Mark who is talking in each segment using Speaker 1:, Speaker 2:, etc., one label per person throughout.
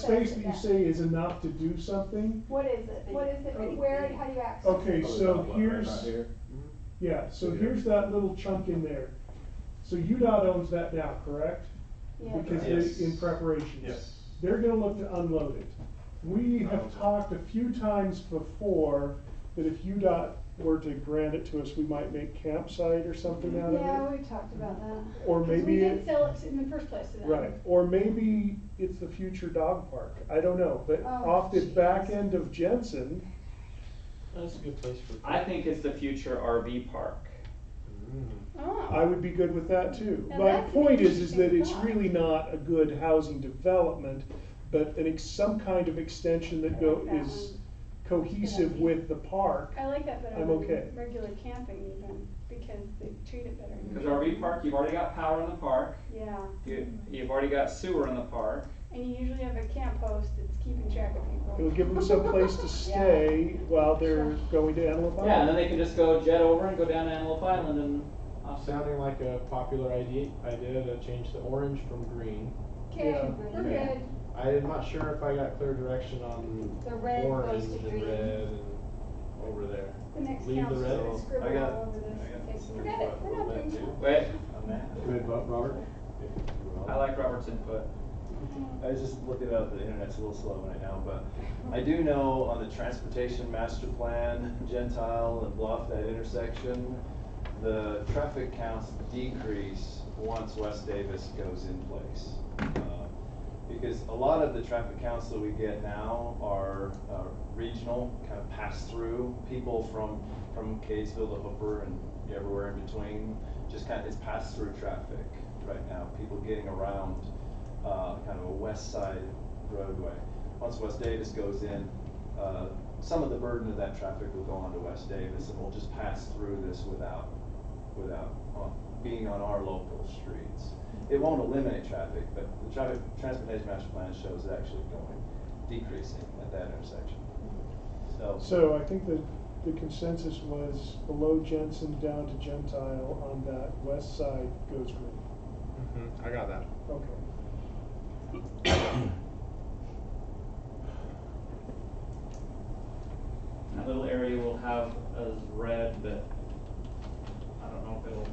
Speaker 1: Space that you say is enough to do something,
Speaker 2: What is it? What is it? And where and how do you access? it?
Speaker 1: okay,
Speaker 3: Probably
Speaker 1: so
Speaker 3: about what, right about
Speaker 1: here's,
Speaker 3: here?
Speaker 1: yeah, so
Speaker 3: Yeah.
Speaker 1: here's that little chunk in there. So UDOT owns that now, correct?
Speaker 2: Yeah.
Speaker 1: Because
Speaker 3: Yes.
Speaker 1: they, in preparation.
Speaker 3: Yes.
Speaker 1: They're gonna look to unload it. We have
Speaker 3: Okay.
Speaker 1: talked a few times before that if UDOT were to grant it to us, we might make campsite or something
Speaker 3: Mm-hmm.
Speaker 1: out of it.
Speaker 2: Yeah, we talked about that.
Speaker 1: Or
Speaker 2: 'Cause
Speaker 1: maybe
Speaker 2: we
Speaker 1: it-
Speaker 2: did sell it in the first place to them.
Speaker 1: Right, or maybe it's the future dog park, I don't know, but
Speaker 2: Oh,
Speaker 1: off the back
Speaker 2: jeez.
Speaker 1: end of Jensen,
Speaker 4: That's a good place for.
Speaker 5: I think it's the future RV park.
Speaker 4: Mm.
Speaker 2: Oh.
Speaker 1: I would be good with that too.
Speaker 2: Now
Speaker 1: My
Speaker 2: that's an
Speaker 1: point is, is that
Speaker 2: interesting
Speaker 1: it's
Speaker 2: thought.
Speaker 1: really not a good housing development, but an ex, some kind of extension that
Speaker 2: I
Speaker 1: go,
Speaker 2: like that
Speaker 1: is
Speaker 2: one.
Speaker 1: cohesive
Speaker 2: idea.
Speaker 1: with the park.
Speaker 2: I like that better
Speaker 1: I'm okay.
Speaker 2: than regular camping even, because they treat it better.
Speaker 5: Because RV park, you've already got power in the park,
Speaker 2: Yeah,
Speaker 5: you, you've already got sewer in the park.
Speaker 2: and you usually have a camp host that's keeping track of people.
Speaker 1: It'll give them some place to stay while they're going to Antelope
Speaker 5: Yeah, and then
Speaker 1: Island.
Speaker 5: they can just go jet over and go down to Antelope Island and off.
Speaker 4: Sounding like a popular idea, idea to change the orange from green.
Speaker 2: Okay,
Speaker 1: Yeah.
Speaker 2: we're good.
Speaker 4: I am not sure if I got clear direction on
Speaker 6: The red
Speaker 4: orange
Speaker 6: goes to
Speaker 4: and
Speaker 6: green.
Speaker 4: red and over there.
Speaker 2: The next
Speaker 4: Leave the
Speaker 2: council
Speaker 4: red.
Speaker 2: is scribbling
Speaker 3: got-
Speaker 2: all over
Speaker 3: I got
Speaker 2: this.
Speaker 3: three,
Speaker 2: Forget it,
Speaker 3: five,
Speaker 2: we're not doing
Speaker 3: four,
Speaker 2: that.
Speaker 5: Wait,
Speaker 3: On that.
Speaker 4: Good, Robert? Mm-hmm,
Speaker 5: I like Robert's input.
Speaker 3: I was just looking it up, the internet's a little slow right now, but I do know on the transportation master plan, Gentile and Bluff, that intersection, the traffic counts decrease once West Davis goes in place. Uh, Because a lot of the traffic counts that we get now are uh, regional, kind of pass-through, people from, from Catesville to Hooper and everywhere in between, just kind of, it's pass-through traffic right now, people getting around uh, kind of a west side roadway. Once West Davis goes in, uh, some of the burden of that traffic will go on to West Davis and we'll just pass through this without, without uh, being on our local streets. It won't eliminate traffic, but the traffic, transportation master plan shows it actually going, decreasing at that intersection. So,
Speaker 1: So I think that the consensus was below Jensen down to Gentile on that west side goes green.
Speaker 4: mm-hmm, I got that.
Speaker 1: Okay.
Speaker 5: That little area will have as red, but I don't know if it'll.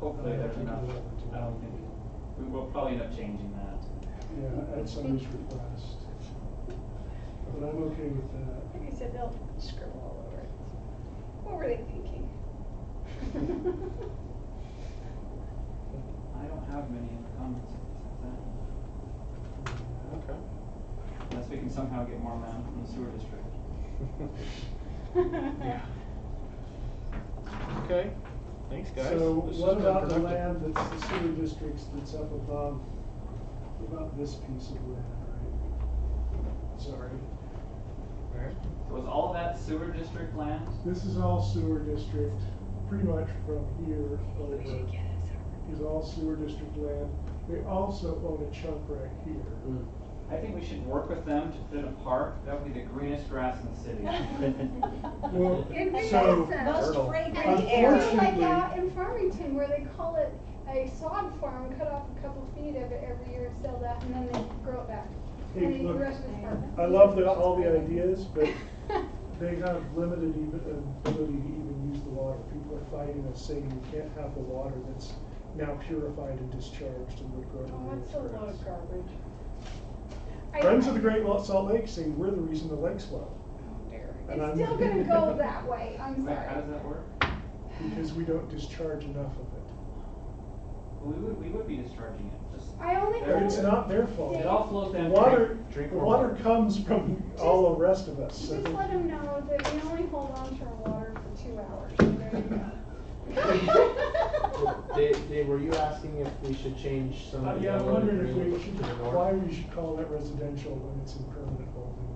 Speaker 5: Hopefully there's enough, I don't think, we will probably end up changing that.
Speaker 1: Yeah, at somebody's request. But I'm okay with that.
Speaker 2: Like I said, they'll scribble all over it. What were they thinking?
Speaker 5: I don't have many in the comments,
Speaker 4: Okay.
Speaker 5: unless we can somehow get more land from the sewer district.
Speaker 4: Okay, thanks guys.
Speaker 1: So
Speaker 4: This
Speaker 1: what
Speaker 4: has been
Speaker 1: about the land
Speaker 4: productive.
Speaker 1: that's the sewer districts that's up above, what about this piece of land, right? Sorry,
Speaker 4: Alright.
Speaker 5: So is all that sewer district land?
Speaker 1: this is all sewer district, pretty much from here over, is all sewer district land. They also own a chunk right here.
Speaker 4: Hmm.
Speaker 5: I think we should work with them to put in a park, that would be the greenest grass in the city.
Speaker 1: Well,
Speaker 2: It'd be
Speaker 1: so- uh,
Speaker 2: awesome.
Speaker 6: Most
Speaker 4: Turtle.
Speaker 6: fragrant air.
Speaker 2: It's like
Speaker 1: Unfortunately-
Speaker 2: out in Farmington where they call it a sod farm, cut off a couple feet of it every year and sell that and then they grow it back.
Speaker 1: Hey,
Speaker 2: And then the
Speaker 1: look,
Speaker 2: rest is farming.
Speaker 1: I love the, all the ideas, but
Speaker 2: Oh,
Speaker 1: they have limited even, uh, ability to even use the water. People are fighting us saying you can't have the water that's now purified and discharged and would grow to
Speaker 2: Oh,
Speaker 1: green
Speaker 2: that's a lot
Speaker 1: grass.
Speaker 2: of garbage. I-
Speaker 1: Friends of the Great Salt Lake say we're the reason the lake's low, and I'm-
Speaker 2: It's still gonna go that way, I'm
Speaker 5: Wait, how
Speaker 2: sorry.
Speaker 5: does that work?
Speaker 1: because we don't discharge enough of it.
Speaker 5: Well, we would, we would be discharging it, just,
Speaker 2: I only
Speaker 5: There
Speaker 1: It's
Speaker 2: hope,
Speaker 1: not their fault.
Speaker 5: it all flows
Speaker 1: The
Speaker 5: down.
Speaker 1: water,
Speaker 4: Drink
Speaker 1: the
Speaker 4: more
Speaker 1: water
Speaker 4: water.
Speaker 1: comes from all the rest of us.
Speaker 2: just
Speaker 1: so-
Speaker 2: let them know that we only hold on to our water for two hours, so there you go.
Speaker 4: Dave, Dave, were you asking if we should change some
Speaker 1: Uh,
Speaker 4: of the
Speaker 1: Yeah, I'm
Speaker 4: yellow to
Speaker 1: wondering if
Speaker 4: green
Speaker 1: we should,
Speaker 4: to the north?
Speaker 1: why we should call it residential when it's in permanent holding.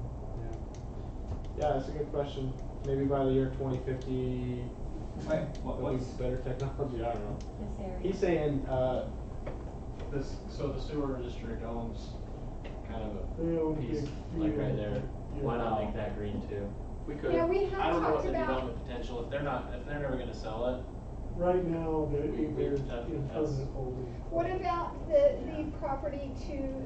Speaker 4: Yeah, that's a good question. Maybe by the year twenty fifty,
Speaker 5: Wait, what,
Speaker 4: there'll be
Speaker 5: what's
Speaker 4: better technology, I don't know.
Speaker 6: This area.
Speaker 4: He's saying, uh,
Speaker 7: This, so the sewer district owns kind of
Speaker 1: They
Speaker 7: a
Speaker 1: own
Speaker 7: piece,
Speaker 1: big
Speaker 7: like right
Speaker 1: field.
Speaker 7: there, why not make that green too? We could,
Speaker 2: Yeah, we have
Speaker 7: I don't know what
Speaker 2: talked
Speaker 7: the
Speaker 2: about-
Speaker 7: development potential, if they're not, if they're never gonna sell it,
Speaker 1: right now, they're
Speaker 7: We- we-
Speaker 1: they're
Speaker 7: that-
Speaker 1: in
Speaker 7: that's-
Speaker 1: permanent holding.
Speaker 2: What about the, the property to